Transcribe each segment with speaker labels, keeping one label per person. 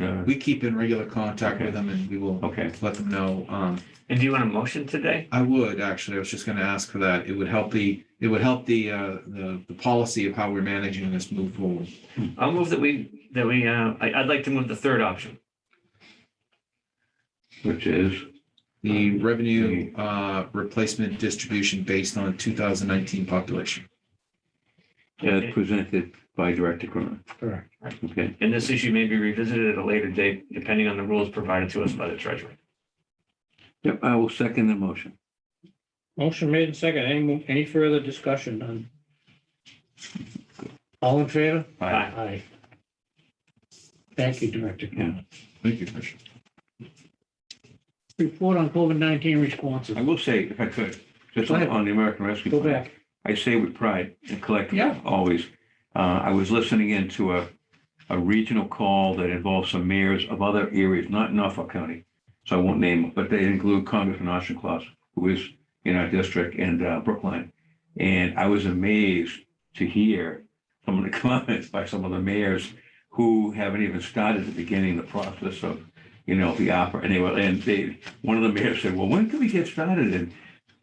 Speaker 1: Uh,
Speaker 2: Okay.
Speaker 3: we keep in regular contact with
Speaker 2: Okay.
Speaker 3: them and we will
Speaker 2: Okay.
Speaker 3: let them know. Um,
Speaker 2: And do you want a motion today?
Speaker 3: I would, actually, I was just gonna ask for that. It would help the, it would help the, uh, the, the policy of how we're managing this move forward.
Speaker 2: I'll move that we, that we, uh, I, I'd like to move the third option.
Speaker 1: which is,
Speaker 3: The revenue, uh, replacement distribution based on two thousand nineteen population.
Speaker 1: as
Speaker 2: Okay.
Speaker 1: uh, presented by Director Cronin.
Speaker 3: Correct.
Speaker 1: Okay,
Speaker 2: And this issue may be revisited at a later date, depending on the rules provided to us by the treasurer.
Speaker 1: yep, I will second the motion.
Speaker 4: Motion made and second. Any, mo- any further discussion on? All in favor?
Speaker 2: Aye.
Speaker 4: Aye. Thank you, Director. Cronin.
Speaker 3: Thank you, Commissioner.
Speaker 4: Report on COVID-19 responses.
Speaker 1: I will say, if I could, just
Speaker 4: Go
Speaker 1: on
Speaker 4: ahead.
Speaker 1: on the American Rescue.
Speaker 4: Go
Speaker 1: Plan,
Speaker 4: back.
Speaker 1: I say with pride and collectively,
Speaker 4: Yeah.
Speaker 1: always. Uh, I was listening in to a, a regional call that involved some mayors of other areas, not Norfolk County. So I won't name, them, but they include Congressman Austin Claus, who is in our district and uh, Brookline. And I was amazed to hear some of the comments by some of the mayors who haven't even started the beginning, the process of, you know, the opera. And they were, and they, one of the mayors said, well, when can we get started? And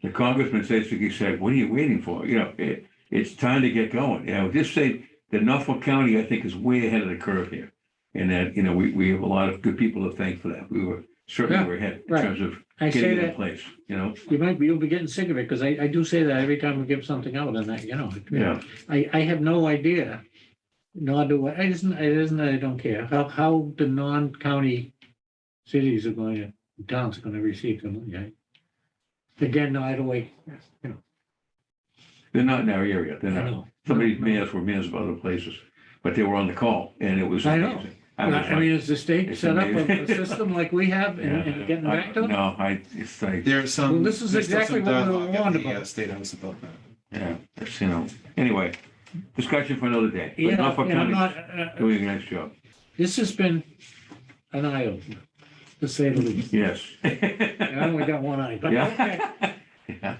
Speaker 1: the congressman basically said, what are you waiting for? You know, it, it's time to get going. You know, just say that Norfolk County, I think, is way ahead of the curve here. And that, you know, we, we have a lot of good people to thank for that. We were certainly
Speaker 4: Yeah,
Speaker 1: were ahead in
Speaker 4: right.
Speaker 1: terms of
Speaker 4: I say
Speaker 1: getting it in
Speaker 4: that,
Speaker 1: place, you know?
Speaker 4: you might be, you'll be getting sick of it because I, I do say that every time we give something out and that, you know. it-
Speaker 1: Yeah,
Speaker 4: I, I have no idea, nor do I, it isn't, it isn't that I don't care, how, how the non-county cities are going to, towns are going to receive the money. I- Again, no, I don't wait, you know,
Speaker 1: they're not in our area.
Speaker 4: I
Speaker 1: They're
Speaker 4: don't
Speaker 1: not.
Speaker 4: know.
Speaker 1: Some of these mayors were mayors of other places, but they were on the call and it was
Speaker 4: I know.
Speaker 1: amazing. I was
Speaker 4: I mean, is the state
Speaker 1: It's
Speaker 4: set up a- a
Speaker 1: amazing.
Speaker 4: system like we have and, and
Speaker 1: like,
Speaker 4: getting
Speaker 1: yeah,
Speaker 4: back to
Speaker 1: I-
Speaker 4: them?
Speaker 1: No, I, it's like,
Speaker 3: There's some.
Speaker 4: Well, this is
Speaker 3: there's still some
Speaker 4: exactly what we were
Speaker 3: dialogue at
Speaker 4: warned
Speaker 3: the, uh,
Speaker 4: about.
Speaker 3: State House about that.
Speaker 1: yeah, it's, you know, anyway, discussion for another day. But
Speaker 4: Yeah,
Speaker 1: Norfolk
Speaker 4: and
Speaker 1: County
Speaker 4: I'm not, uh, uh,
Speaker 1: doing a nice job.
Speaker 4: this has been an eye opener, to say the least,
Speaker 1: Yes.
Speaker 4: I only got one eye, but okay.
Speaker 1: Yeah. Yeah.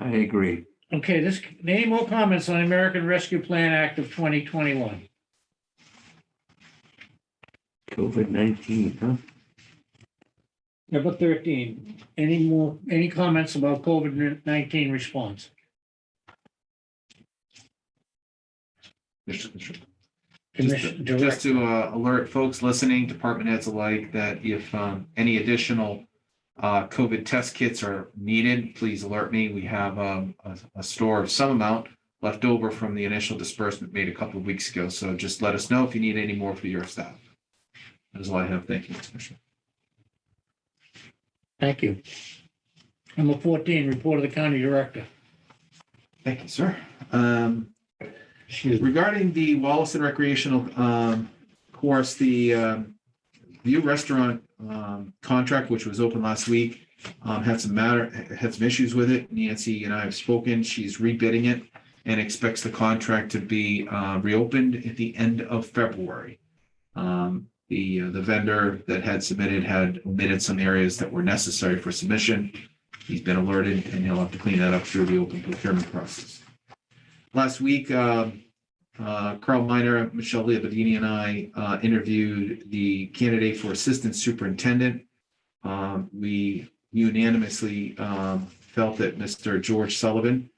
Speaker 1: I agree.
Speaker 4: Okay, this, any more comments on the American Rescue Plan Act of 2021?
Speaker 1: COVID nineteen, huh?
Speaker 4: Number 13, any more, any comments about COVID-19 response?
Speaker 3: Mr. Commissioner.
Speaker 4: Commission-
Speaker 3: Just
Speaker 4: Direct-
Speaker 3: to uh, alert folks listening, department heads alike, that if um, any additional uh, COVID test kits are needed, please alert me. We have um, a a store of some amount left over from the initial disbursement made a couple of weeks ago. So just let us know if you need any more for your staff. That is all I have. Thank you, Commissioner.
Speaker 4: Thank you. Number 14, report of the county director.
Speaker 3: Thank you, sir. Um,
Speaker 4: Excuse me.
Speaker 3: Regarding the Wallace and Recreational um, Course, the um, View Restaurant um, contract, which was open last week, um, had some matter, had some issues with it. Nancy and I have spoken. She's rebidding it and expects the contract to be uh, reopened at the end of February. Um, The, uh, the vendor that had submitted had omitted some areas that were necessary for submission. He's been alerted and he'll have to clean that up through the open procurement process. Last week, um, uh, Carl Miner, Michelle Liabadini, and I uh, interviewed the candidate for assistant superintendent. Um, We unanimously um, felt that Mr. George Sullivan,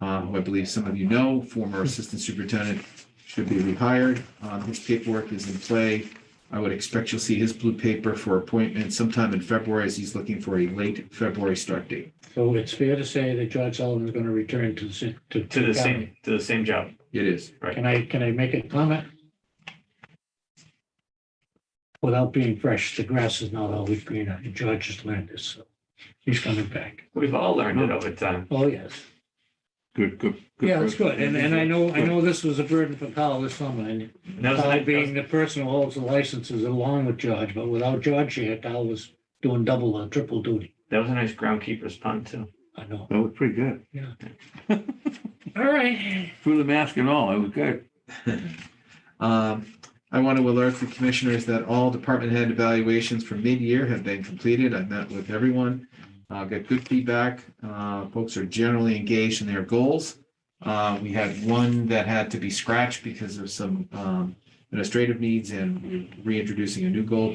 Speaker 3: uh, who I believe some of you know, former assistant superintendent, should be rehired. Um, His paperwork is in play. I would expect you'll see his blue paper for appointment sometime in February as he's looking for a late February start date.
Speaker 4: So it's fair to say that George Sullivan is going to return to the, ci- to
Speaker 2: To the
Speaker 4: county.
Speaker 2: same, to the same job.
Speaker 3: It is.
Speaker 4: Can I, can I make a comment? Without being fresh, the grass is not always greener. and George has learned this, so he's coming back.
Speaker 2: We've all learned it over time.
Speaker 4: Oh, yes.
Speaker 1: Good, good.
Speaker 4: Yeah, that's good. And, and I know, I
Speaker 1: Good.
Speaker 4: know this was a burden for Kyle this summer and
Speaker 2: And that was a
Speaker 4: Kyle
Speaker 2: nice-
Speaker 4: being the person who holds the licenses along with George, but without George here, Kyle was doing double or triple duty.
Speaker 2: That was a nice groundkeeper's pun too.
Speaker 4: I know.
Speaker 1: That was pretty good.
Speaker 4: All right.
Speaker 1: Through the mask and all, it was good.
Speaker 3: Um, I want to alert the commissioners that all department head evaluations for mid-year have been completed. I've met with everyone. Uh, got good feedback. Uh, folks are generally engaged in their goals. Uh, we had one that had to be scratched because of some, um, administrative needs and we're reintroducing a new goal